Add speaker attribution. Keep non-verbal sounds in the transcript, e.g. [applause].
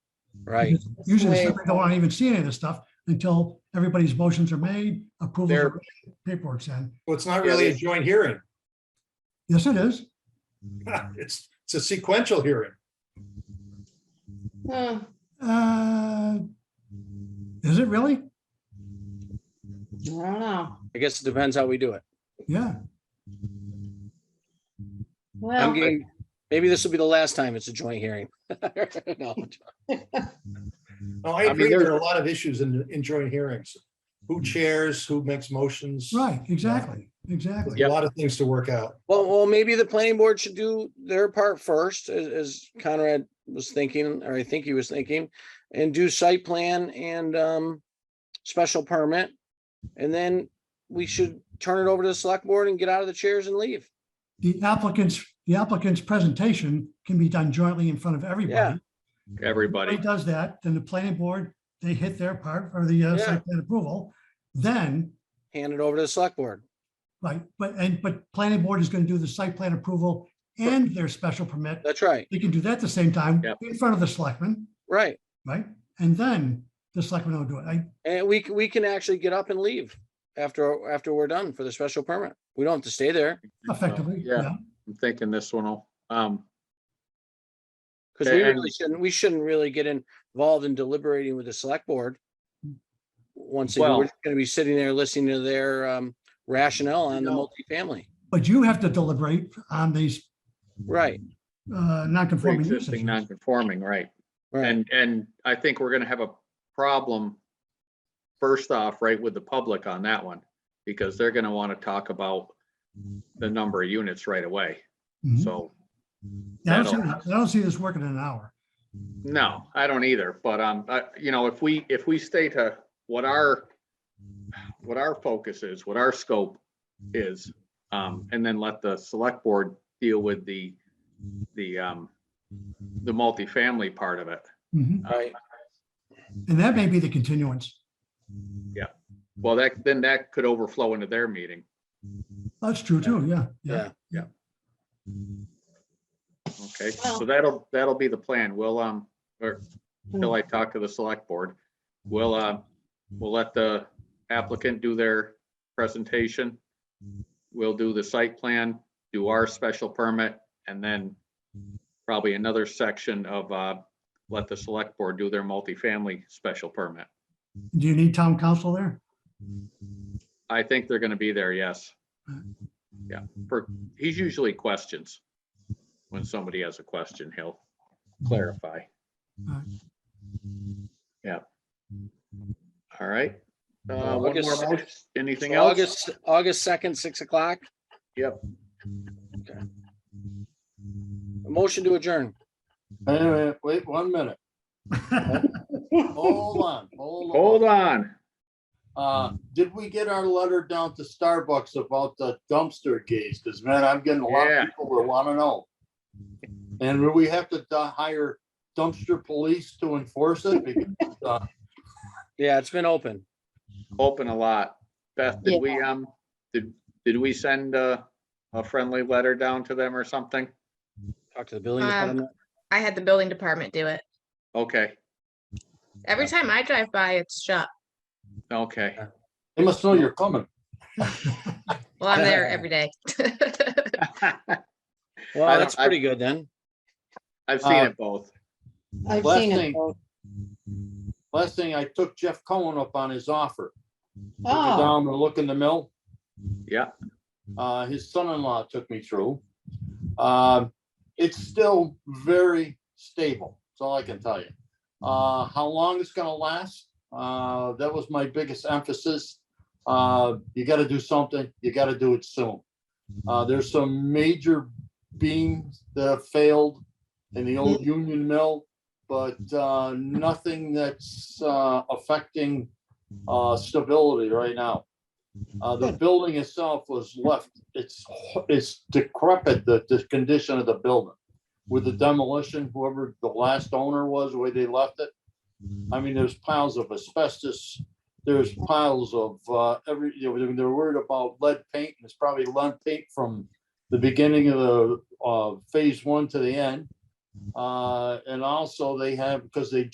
Speaker 1: right?
Speaker 2: Usually
Speaker 3: Wait.
Speaker 2: they don't want to even see any of this stuff until everybody's motions are made,
Speaker 4: They're-
Speaker 2: approval, paperwork's in.
Speaker 4: Well, it's not
Speaker 5: Yeah,
Speaker 4: really a
Speaker 5: they-
Speaker 4: joint hearing.
Speaker 2: Yes, it is.
Speaker 6: Mm.
Speaker 4: [laughs] It's, it's a sequential hearing.
Speaker 3: Huh.
Speaker 2: Uh, Is it really?
Speaker 3: I don't know.
Speaker 1: I guess it depends how we do it.
Speaker 2: Yeah,
Speaker 1: I'm
Speaker 3: Well,
Speaker 1: getting, maybe this will be the last time it's a joint hearing. [laughs] No.
Speaker 4: No, I
Speaker 1: I mean,
Speaker 4: agree, there
Speaker 1: there-
Speaker 4: are a lot of issues in, in joint hearings.
Speaker 6: Mm.
Speaker 4: Who chairs, who makes motions?
Speaker 2: right, exactly, exactly.
Speaker 4: There's A lot of things to work out.
Speaker 1: Well, well, maybe the planning board should do their part first, as, as Conrad was thinking, or I think he was thinking, and do site plan and, um, special permit. And then we should turn it over to the select board and get out of the chairs and leave.
Speaker 2: The applicant's, the applicant's presentation can be done jointly in front of everybody.
Speaker 1: Yeah.
Speaker 2: Everybody
Speaker 5: Everybody,
Speaker 2: does that, then the planning board, they hit their part for the uh,
Speaker 1: Yeah.
Speaker 2: site plan approval. Then,
Speaker 1: Hand it over to the select board.
Speaker 2: right, but, and, but planning board is going to do the site plan approval and their special permit.
Speaker 1: That's right,
Speaker 2: They can do that at the same time
Speaker 5: Yep.
Speaker 2: in front of the selectmen,
Speaker 1: right.
Speaker 2: right? And then the selectmen will do it. I,
Speaker 1: And we, c- we can actually get up and leave after, after we're done for the special permit. We don't have to stay there
Speaker 2: effectively,
Speaker 5: Yeah.
Speaker 2: yeah.
Speaker 5: I'm thinking this one will, um,
Speaker 1: because we
Speaker 5: And-
Speaker 1: really shouldn't, we shouldn't really get involved in deliberating with the select board. Once again,
Speaker 5: Well-
Speaker 1: we're just going to be sitting there listening to their um, rationale on the
Speaker 4: No.
Speaker 1: multifamily.
Speaker 2: But you have to deliberate on these
Speaker 1: Right,
Speaker 2: uh, non-conforming uses.
Speaker 5: pre-existing non-conforming, right?
Speaker 1: right.
Speaker 5: And, and I think we're gonna have a problem first off, right, with the public on that one, because they're gonna wanna talk about the number of units right away.
Speaker 2: Mhm.
Speaker 5: So,
Speaker 2: Yeah, I don't see,
Speaker 5: that'll-
Speaker 2: that- I don't see this working in an hour.
Speaker 5: no, I don't either, but, um, I, you know, if we, if we stay to what our, what our focus is, what our scope is, um, and then let the select board deal with the, the, um, the multifamily part of it.
Speaker 2: Mhm.
Speaker 5: uh,
Speaker 1: Right.
Speaker 5: Mm-hmm.
Speaker 2: And that may be the continuance.
Speaker 5: Well, that, then that could overflow into their meeting.
Speaker 2: That's true too, yeah, yeah.
Speaker 5: uh,
Speaker 1: Yeah.
Speaker 5: Okay, so
Speaker 3: Well-
Speaker 5: that'll, that'll be the plan. We'll, um, or till I talk to the select board, we'll, uh, we'll let the applicant do their presentation. We'll do the site plan, do our special permit, and then probably another section of, uh, let the select board do their multifamily special permit.
Speaker 2: Do you need town council there?
Speaker 5: I think they're gonna be there, yes.
Speaker 2: Right.
Speaker 5: Yeah, for, he's usually questions. When somebody has a question, he'll clarify.
Speaker 2: Right.
Speaker 5: Yeah. All right. Uh,
Speaker 1: So
Speaker 5: one more
Speaker 1: August-
Speaker 5: motion, anything
Speaker 1: So
Speaker 5: else?
Speaker 1: August, August 2nd, 6 o'clock.
Speaker 5: Yep.
Speaker 1: Okay. A Motion to adjourn.
Speaker 6: Wait, a minute, wait one minute. Hold on, hold on.
Speaker 5: Hold on.
Speaker 6: Uh, did we get our letter down to Starbucks about the dumpster case? Cause man, I'm getting a lot
Speaker 5: Yeah.
Speaker 6: of people that wanna know. And will we have to uh, hire dumpster police to enforce it? Because, uh,
Speaker 1: Yeah, it's been open.
Speaker 5: Open a lot. Beth,
Speaker 3: Yeah.
Speaker 5: did we, um, did, did we send a, a friendly letter down to them or something?
Speaker 1: Talk to the building
Speaker 7: Um,
Speaker 1: department.
Speaker 7: I had the building department do it.
Speaker 5: Okay,
Speaker 7: Every time I drive by, it's shut.
Speaker 5: okay.
Speaker 6: They must know you're coming.
Speaker 7: Well, I'm there every day. [laughs]
Speaker 5: I
Speaker 1: Well,
Speaker 5: don't-
Speaker 1: that's
Speaker 5: I-
Speaker 1: pretty good then.
Speaker 5: I've seen
Speaker 6: Uh,
Speaker 5: it both.
Speaker 3: I've
Speaker 6: Last
Speaker 3: seen it.
Speaker 6: thing- Last thing, I took Jeff Cohen up on his offer. to go
Speaker 3: Oh,
Speaker 6: Down and look in the mill.
Speaker 5: Yeah,
Speaker 6: uh, his son-in-law took me through. Um, it's still very stable. That's all I can tell you. Uh, how long it's gonna last? Uh, that was my biggest emphasis. Uh, you gotta do something. You gotta do it soon. Uh, there's some major beams that have failed in the old Union Mill, but, uh, nothing that's, uh, affecting, uh, stability right now. Uh, the building itself was left, it's, it's decrepit, the, the condition of the building. With the demolition, whoever the last owner was, the way they left it. I mean, there's piles of asbestos, there's piles of, uh, every, you know, they're worried about lead paint, and it's probably lead paint from the beginning of the, uh, phase one to the end. Uh, and also they have, because they